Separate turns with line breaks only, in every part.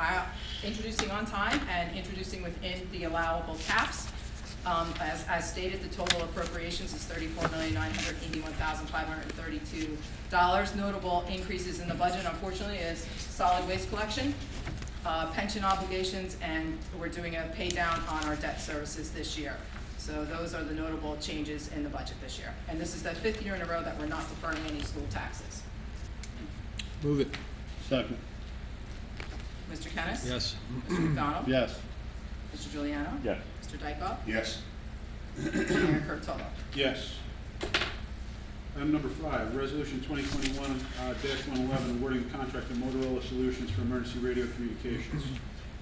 Uh, introducing on time and introducing within the allowable caps. Um, As as stated, the total appropriations is thirty-four million, nine hundred eighty-one thousand, five hundred and thirty-two dollars. Notable increases in the budget unfortunately is solid waste collection, uh, pension obligations, and we're doing a pay down on our debt services this year. So those are the notable changes in the budget this year. And this is the fifth year in a row that we're not deferring any school taxes.
Move it.
Second.
Mr. Kennis?
Yes.
Mr. McDonald?
Yes.
Mr. Juliano?
Yes.
Mr. Dykoff?
Yes.
Mayor Kurtolo?
Yes. Item number five, resolution twenty twenty-one, uh, dash one eleven, awarding the contract to Motorola Solutions for emergency radio communications.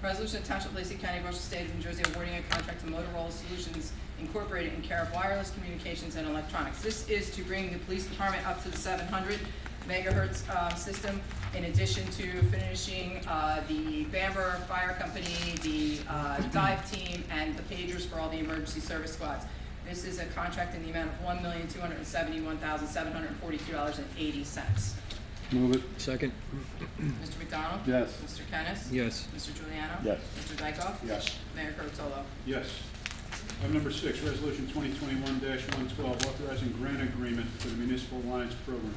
Resolution to Township of Lacey County, Ocean State of New Jersey, awarding a contract to Motorola Solutions Incorporated in care of wireless communications and electronics. This is to bring the police department up to the seven hundred megahertz, uh, system, in addition to finishing, uh, the Bamber Fire Company, the, uh, dive team, and the pagers for all the emergency service squads. This is a contract in the amount of one million, two hundred and seventy-one thousand, seven hundred and forty-two dollars and eighty cents.
Move it.
Second.
Mr. McDonald?
Yes.
Mr. Kennis?
Yes.
Mr. Juliano?
Yes.
Mr. Dykoff?
Yes.
Mayor Kurtolo?
Yes. Item number six, resolution twenty twenty-one, dash one twelve, authorizing grant agreement for the municipal alliance program.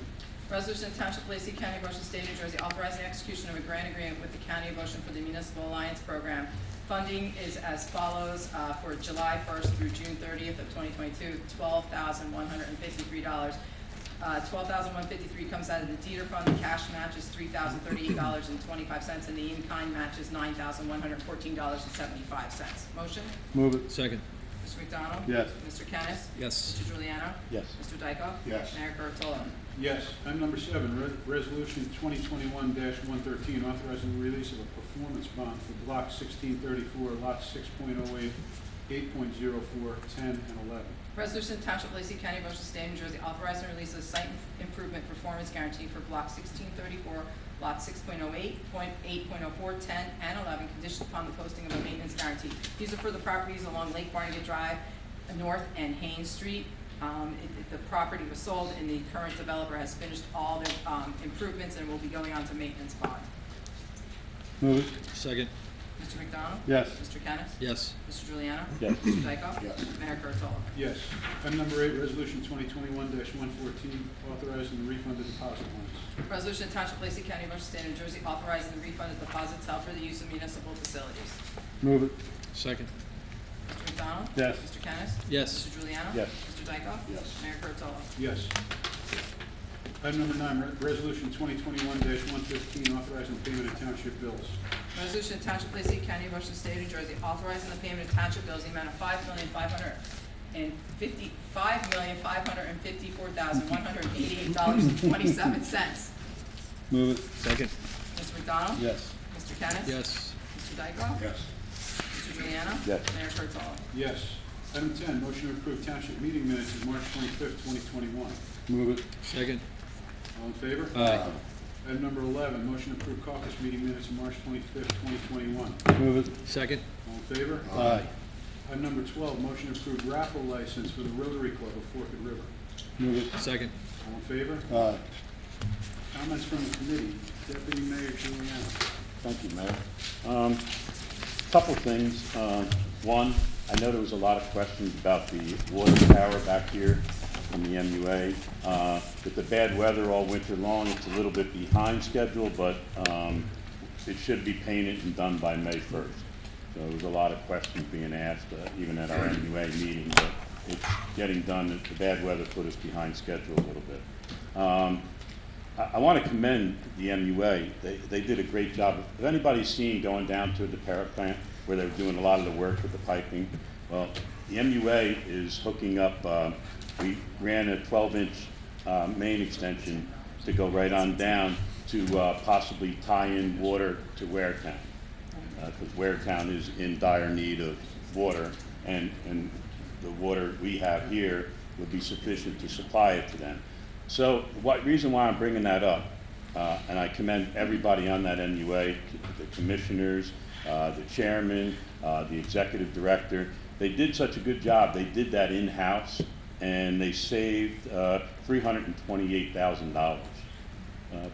Resolution of Township of Lacey County, Ocean State, New Jersey, authorizing execution of a grant agreement with the County of Ocean for the Municipal Alliance Program. Funding is as follows, uh, for July first through June thirtieth of twenty twenty-two, twelve thousand one hundred and fifty-three dollars. Uh, twelve thousand one fifty-three comes out of the Dieter Fund, the cash match is three thousand thirty-eight dollars and twenty-five cents, and the in-kind match is nine thousand one hundred and fourteen dollars and seventy-five cents. Motion?
Move it.
Second.
Mr. McDonald?
Yes.
Mr. Kennis?
Yes.
Mr. Juliano?
Yes.
Mr. Dykoff?
Yes.
Mayor Kurtolo?
Yes. Item number seven, re- resolution twenty twenty-one, dash one thirteen, authorizing the release of a performance bond for block sixteen thirty-four, lots six point oh eight, eight point zero four, ten, and eleven.
Resolution to Township of Lacey County, Ocean State, New Jersey, authorizing the release of site improvement performance guarantee for block sixteen thirty-four, lot six point oh eight, point eight point oh four, ten, and eleven, conditioned upon the posting of a maintenance guarantee. These are for the properties along Lake Barnegat Drive, uh, North and Haynes Street. Um, it- it- the property was sold, and the current developer has finished all the, um, improvements and will be going on to maintenance bond.
Move it.
Second.
Mr. McDonald?
Yes.
Mr. Kennis?
Yes.
Mr. Juliano?
Yes.
Mr. Dykoff?
Yes.
Mayor Kurtolo?
Yes. Item number eight, resolution twenty twenty-one one fourteen, authorizing the refund of deposit bonds.
Resolution to Township of Lacey County, Ocean State, New Jersey, authorizing the refund of deposits held for the use of municipal facilities.
Move it.
Second.
Mr. McDonald?
Yes.
Mr. Kennis?
Yes.
Mr. Juliano?
Yes.
Mr. Dykoff?
Yes.
Mayor Kurtolo?
Yes. Item number nine, re- resolution twenty twenty-one one fifteen, authorizing payment of township bills.
Resolution to Township of Lacey County, Ocean State, New Jersey, authorizing the payment of township bills in the amount of five million, five hundred and fifty, five million, five hundred and fifty-four thousand, one hundred and eighty-eight dollars and twenty-seven cents.
Move it.
Second.
Mr. McDonald?
Yes.
Mr. Kennis?
Yes.
Mr. Dykoff?
Yes.
Mr. Juliano?
Yes.
Mayor Kurtolo?
Yes. Item ten, motion to approve township meeting minutes of March twenty-fifth, twenty twenty-one.
Move it.
Second.
All in favor?
Aye.
Item number eleven, motion to approve caucus meeting minutes of March twenty-fifth, twenty twenty-one.
Move it.
Second.
All in favor?
Aye.
Item number twelve, motion to approve raffle license for the Rotary Club of Forked River.
Move it.
Second.
All in favor?
Aye.
Comments from the committee, Deputy Mayor Juliana.
Thank you, Mayor. Um, Couple things. Um, One, I know there was a lot of questions about the water tower back here on the MUA. Uh, With the bad weather all winter long, it's a little bit behind schedule, but um, it should be painted and done by May 1st. So there was a lot of questions being asked, uh, even at our MUA meeting, but it's getting done. The bad weather put us behind schedule a little bit. Um, I, I want to commend the MUA. They, they did a great job. If anybody's seen going down to the Parrot plant where they're doing a lot of the work with the piping, well, the MUA is hooking up, uh, we ran a 12-inch uh, main extension to go right on down to uh, possibly tie in water to Ware Town because uh, Ware Town is in dire need of water, and, and the water we have here would be sufficient to supply it to them. So, what, reason why I'm bringing that up, uh, and I commend everybody on that MUA, the commissioners, uh, the chairman, uh, the executive director, they did such a good job, they did that in-house, and they saved uh, $328,000 uh,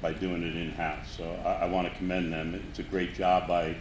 by doing it in-house. So I, I want to commend them. It's a great job by